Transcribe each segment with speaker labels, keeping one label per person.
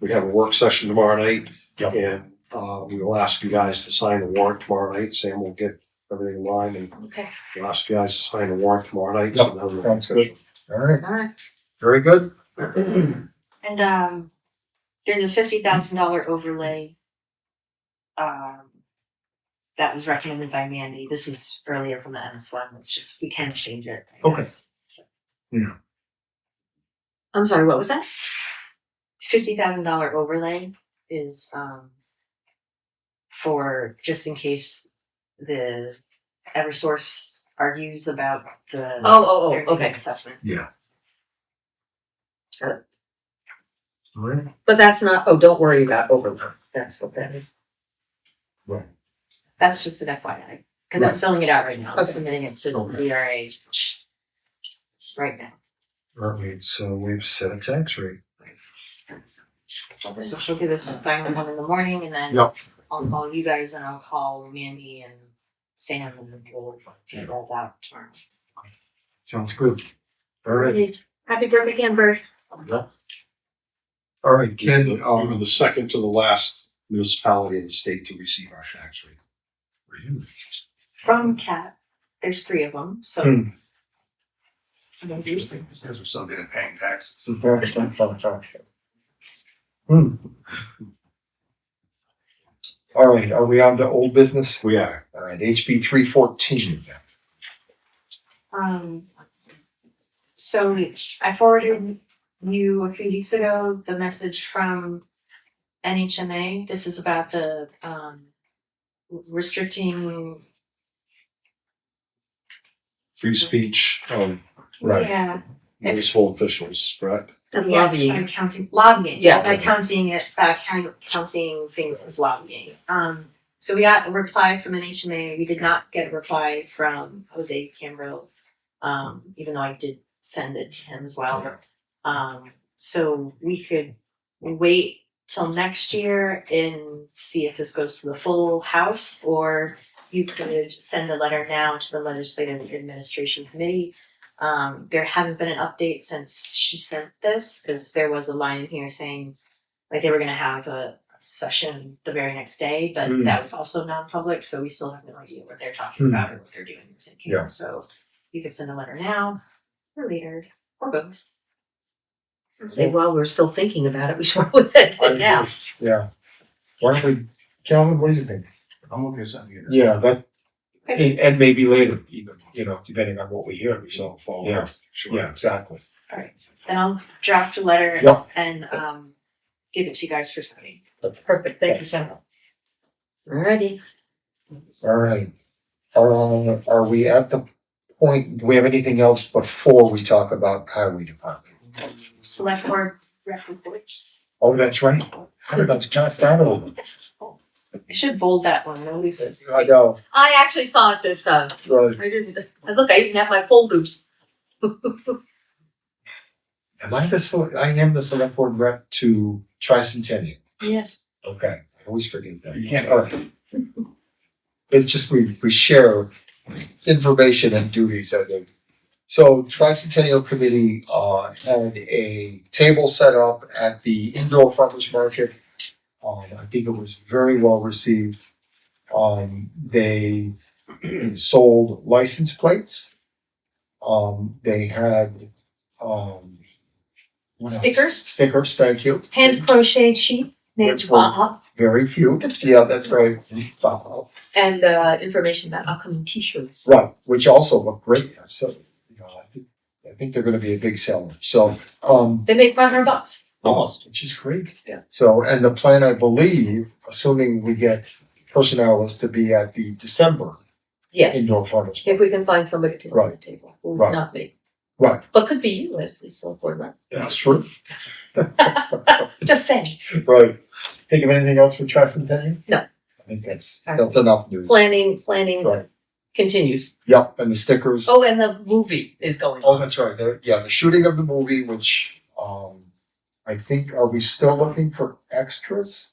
Speaker 1: We have a work session tomorrow night.
Speaker 2: Yep.
Speaker 1: And uh, we will ask you guys to sign the warrant tomorrow night. Sam will get everything in line and
Speaker 3: Okay,
Speaker 1: we'll ask you guys to sign the warrant tomorrow night. so
Speaker 2: Yep,
Speaker 1: then we'll-
Speaker 2: sounds good. All right,
Speaker 3: all right.
Speaker 2: very good.
Speaker 3: And um, there's a fifty thousand dollar overlay. Um, that was recommended by Mandy. This was earlier from the MS one. It's just, we can change it. I
Speaker 2: Okay.
Speaker 3: guess.
Speaker 2: Yeah.
Speaker 3: I'm sorry, what was that? Fifty thousand dollar overlay is um. For just in case the Eversource argues about the.
Speaker 4: Oh, oh,
Speaker 3: their
Speaker 4: oh, okay.
Speaker 3: Assessment.
Speaker 2: Yeah.
Speaker 4: Sure.
Speaker 2: All right.
Speaker 4: But that's not, oh, don't worry about overload. That's what that is.
Speaker 3: That's just an FYI, because I'm
Speaker 2: Right.
Speaker 3: filling it out right now. I'm
Speaker 4: Okay.
Speaker 3: submitting it to
Speaker 2: Okay.
Speaker 3: DRA right now.
Speaker 2: All right, so we've set a tax rate.
Speaker 3: So she'll give us a final one in the morning and then
Speaker 2: Yep.
Speaker 3: I'll call you guys and I'll call Mandy and Sam and we'll get all that tomorrow.
Speaker 2: Sounds good. All right,
Speaker 4: Happy birthday again, Bert.
Speaker 2: all right,
Speaker 1: This is
Speaker 2: Ken,
Speaker 1: the- We were
Speaker 2: um,
Speaker 1: the second to the last municipality in the state to receive our tax rate.
Speaker 3: From Cat, there's three of them, so.
Speaker 2: Hmm.
Speaker 3: Maybe.
Speaker 5: Because we're still getting paying taxes.
Speaker 2: Hmm. All right, are we on to old business?
Speaker 1: We are.
Speaker 2: All right, HB three fourteen.
Speaker 3: Um, so I forwarded you a few weeks ago the message from NHMA. This is about the um, restricting
Speaker 1: Free speech of
Speaker 3: Yeah,
Speaker 1: municipal officials, correct?
Speaker 4: And
Speaker 3: yes,
Speaker 4: lobbying.
Speaker 3: by counting lobbying.
Speaker 4: Yeah.
Speaker 3: by counting it, by count- counting things as lobbying. Um, so we got a reply from NHMA. We did not get a reply from Jose Cambrill, um, even though I did send it to him as well. Um, so we could wait till next year and see if this goes to the full house, or you could send a letter now to the legislative administration committee. Um, there hasn't been an update since she sent this, because there was a line in here saying, like, they were gonna have a session the very next day, but
Speaker 2: Hmm.
Speaker 3: that was also non-public, so we still have no idea what they're talking
Speaker 2: Hmm.
Speaker 3: about or what they're doing or thinking.
Speaker 2: Yeah.
Speaker 3: So you could send a letter now or later or both.
Speaker 4: Say, while we're still thinking about it, we should always send it now.
Speaker 2: Yeah. Why don't we, Calvin, what do you think?
Speaker 5: I'm looking at something here.
Speaker 2: Yeah, that,
Speaker 3: Okay.
Speaker 2: and, and maybe later,
Speaker 5: Even-
Speaker 2: you know, depending on what we hear, so,
Speaker 1: So follow.
Speaker 2: Yeah.
Speaker 1: Sure.
Speaker 2: yeah, exactly.
Speaker 3: Then I'll draft a letter
Speaker 2: Yeah.
Speaker 3: and um, give it to you guys for signing.
Speaker 4: Perfect, thank you, Sam. Alrighty,
Speaker 2: All right. Um, are we at the point, do we have anything else before we talk about highway department?
Speaker 3: Select board rep reports.
Speaker 2: Oh, that's right. How did I just start over?
Speaker 3: I should bold that one. Nobody says.
Speaker 2: know.
Speaker 4: I actually saw it this time.
Speaker 2: Right.
Speaker 4: I didn't, I look, I even have my folders.
Speaker 2: Am I the, sele- I am the select board rep to tricentennial.
Speaker 4: Yes.
Speaker 2: Okay, I always forget that.
Speaker 5: You can't-
Speaker 2: All right. It's just we, we share information and duties. I think. So tricentennial committee, uh, had a table set up at the indoor farmers market. Um, I think it was very well received. Um, they sold license plates. Um, they had, um, what else?
Speaker 4: Stickers?
Speaker 2: Stickers, thank you.
Speaker 4: Hand crocheted sheet named
Speaker 2: Which one?
Speaker 4: Baha
Speaker 2: Very cute. Yeah, that's right. Wow.
Speaker 4: and uh, information about upcoming t-shirts.
Speaker 2: Right, which also look great. So, you know, I think, I think they're going to be a big seller. So, um,
Speaker 4: They make five hundred bucks.
Speaker 2: almost, which is great.
Speaker 4: Yeah.
Speaker 2: So, and the plan, I believe, assuming we get personnel, is to be at the December
Speaker 4: Yes,
Speaker 2: indoor farmers.
Speaker 4: if we can find somebody to run the
Speaker 2: Right.
Speaker 4: table, who's
Speaker 2: Right.
Speaker 4: not me,
Speaker 2: Right,
Speaker 4: but could be you as the select board rep.
Speaker 2: that's true.
Speaker 4: Just saying,
Speaker 2: Right. Think of anything else for tricentennial?
Speaker 4: No.
Speaker 2: I think that's
Speaker 4: All right.
Speaker 2: that's enough news.
Speaker 4: planning, planning
Speaker 2: Right.
Speaker 4: continues.
Speaker 2: Yep, and the stickers.
Speaker 4: Oh, and the movie is going
Speaker 2: Oh,
Speaker 4: on.
Speaker 2: that's right. The, yeah, the shooting of the movie, which um, I think are we still looking for extras?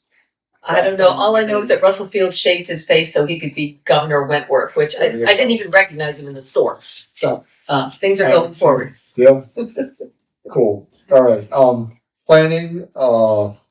Speaker 4: I don't know. All I know is that Russell Field shaved his face so he could be Governor Wentworth, which I, I didn't even recognize him in the store. So uh, things are going forward.
Speaker 2: Yep. cool. All right. Um, planning. Uh,